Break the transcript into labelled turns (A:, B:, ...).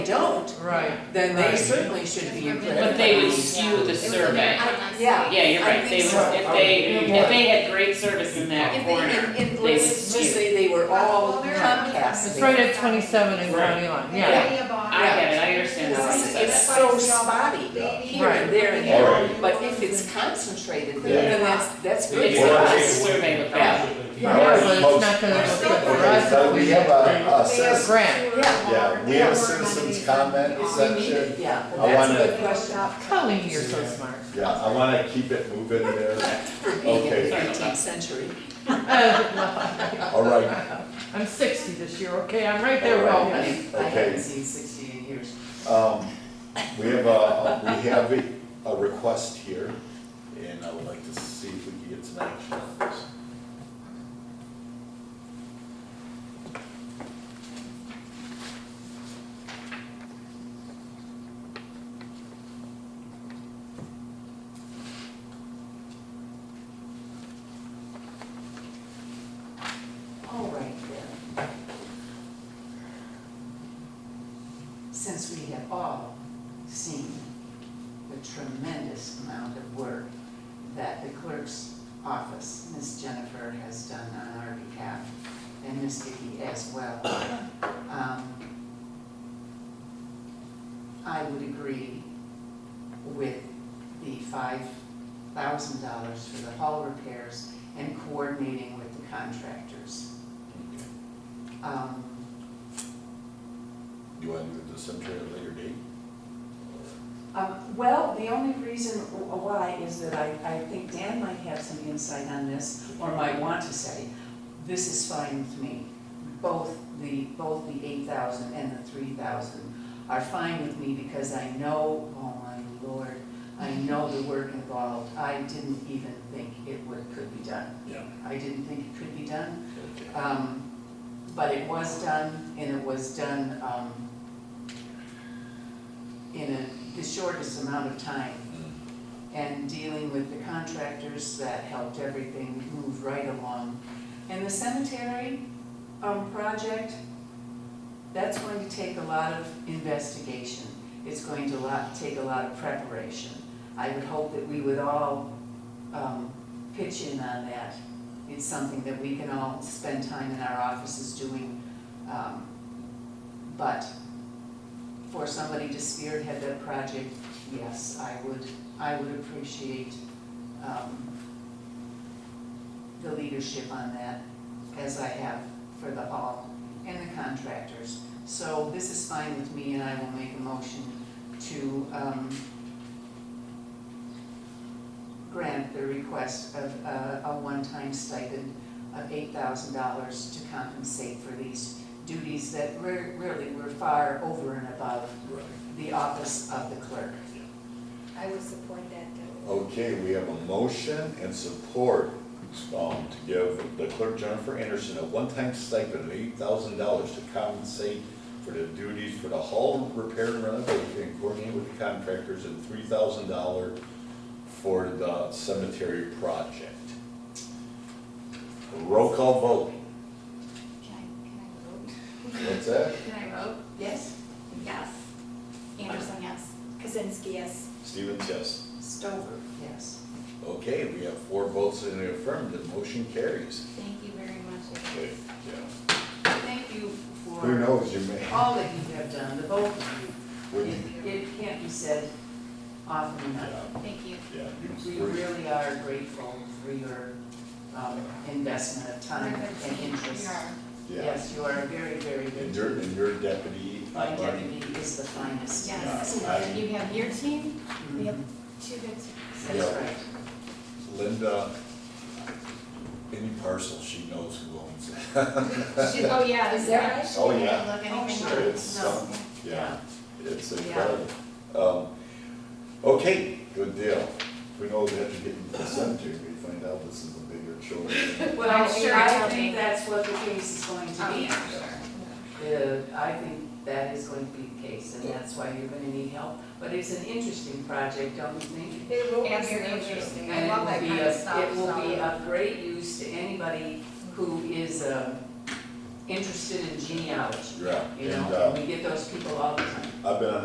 A: Right.
B: then they
A: Right.
B: certainly should be included.
C: But they would skew the survey.
B: Yeah.
C: Yeah, you're right, they
B: I think
C: would,
B: so.
C: if they, if they had great service in that
D: If they,
C: corner,
D: and, and
C: they would
D: let's,
C: skew.
B: Just say they were all
D: Well, they're on the
B: Comcast.
A: It's right at twenty-seven and county line, yeah.
D: any of our-
C: I get it, I understand how you
B: It's,
C: said
B: it's
C: that.
B: so spotty here and there and
E: All
B: there,
E: right.
B: but if it's concentrated,
E: Yeah.
B: then that's, that's good
C: It's
B: for
E: Or-
C: a great
B: us.
C: survey of
B: Yeah.
A: Yeah, but it's not gonna
D: Most-
A: look good for
E: Okay,
A: us.
E: so we have a, a
D: They have
E: citizen,
A: grant.
D: sewer
E: yeah,
D: water,
E: we have a
D: they
E: citizens
D: nominated
E: comment
D: on-
E: section.
B: Yeah,
E: I
B: well, that's a
E: wanna-
B: good question.
A: Colleen, you're so smart.
E: Yeah, I wanna keep it moving there.
B: For being in
E: Okay.
B: the nineteenth century.
E: All right,
A: I'm sixty this year, okay, I'm right there with all of you.
B: I haven't
E: okay.
B: seen sixteen years.
E: Um, we have a, we have a, a request here, and I would like to see if we can get some action on this.
B: All right then. Since we have all seen the tremendous amount of work that the clerk's office, Ms. Jennifer, has done on our behalf, and Ms. Vicky as well, um, I would agree with the five thousand dollars for the hall repairs and coordinating with the contractors. Um,
E: Do you wanna move this into a later date? Or-
B: um, Well, the only reason why is that I, I think Dan might have some insight on this, or might want to say, this is fine with me. Both the, both the eight thousand and the three thousand are fine with me because I know, oh my lord, I know the work involved. I didn't even think it would, could be done.
E: Yeah.
B: I didn't think it could be done.
E: Okay.
B: Um, But it was done, and it was done um, in a- the shortest amount of time.
E: Mm,
B: And dealing with the contractors that helped everything move right along. And the cemetery um, project, that's going to take a lot of investigation. It's going to lot, take a lot of preparation. I would hope that we would all um, pitch in on that. It's something that we can all spend time in our offices doing. um, But for somebody to spearhead that project, yes, I would, I would appreciate um, the leadership on that as I have for the hall and the contractors. So this is fine with me and I will make a motion to um, grant the request of uh, a one-time stipend of eight thousand dollars to compensate for these duties that re- really were far over and above
E: Right.
B: the office of the clerk.
D: I would support that, though.
E: Okay, we have a motion and support, um, to give the clerk Jennifer Anderson a one-time stipend of eight thousand dollars to compensate for the duties for the hall repair and renovation, and coordinate with the contractors, and three thousand dollar for the cemetery project. Roll call vote,
D: Can I, can I
E: what's that?
D: vote? Can I vote?
B: Yes?
D: Yes. Anderson, yes. Kazinsky, yes.
E: Stevens, yes.
B: Stover? Yes.
E: Okay, we have four votes in the affirmative, motion carries.
D: Thank you very much.
E: Okay, yeah.
B: Thank you
E: Who
B: for
E: knows, you may,
B: all that you have done, the both of you.
E: we-
B: It, it can't be said often enough.
E: yeah,
D: Thank you.
E: yeah.
B: We
E: you-
B: really are grateful for your um, investment of time and interest.
E: Yeah.
B: Yes, you are very, very
E: And
B: good.
E: your, and your deputy,
B: My
E: I'm learning.
B: deputy is the finest.
D: Yes.
E: Yeah, I-
D: You have your team, we have
B: Mhm.
D: two good teams.
B: That's right.
E: Linda, any parcel, she knows who owns it.
D: She- Oh, yeah, is that right? She
E: Oh,
D: didn't
E: yeah.
D: Look anything
B: sure.
D: up.
E: It's,
B: No.
E: um, yeah, it's
B: Yeah.
E: incredible. Um, okay, good deal. We know we have to get into the cemetery, we find out this is a bigger chore.
B: Well,
D: I'm sure
B: I
D: it'll
B: think
D: be-
B: that's what the case is going to
D: Oh,
B: be.
D: yeah,
E: Yeah.
D: sure.
B: The- I think that is going to be the case, and that's why you're going to need help. But it's an interesting project, don't you think?
F: It will be very
D: Absolutely.
F: interesting, I
B: And
F: love that
B: it will
F: kind
B: be
F: of
B: a,
F: stuff,
B: it will be
F: so.
B: of great use to anybody who is, um, interested in genealogy,
E: Yeah,
B: you
E: and,
B: know,
E: uh,
B: and we get those people all the time.
E: I've been on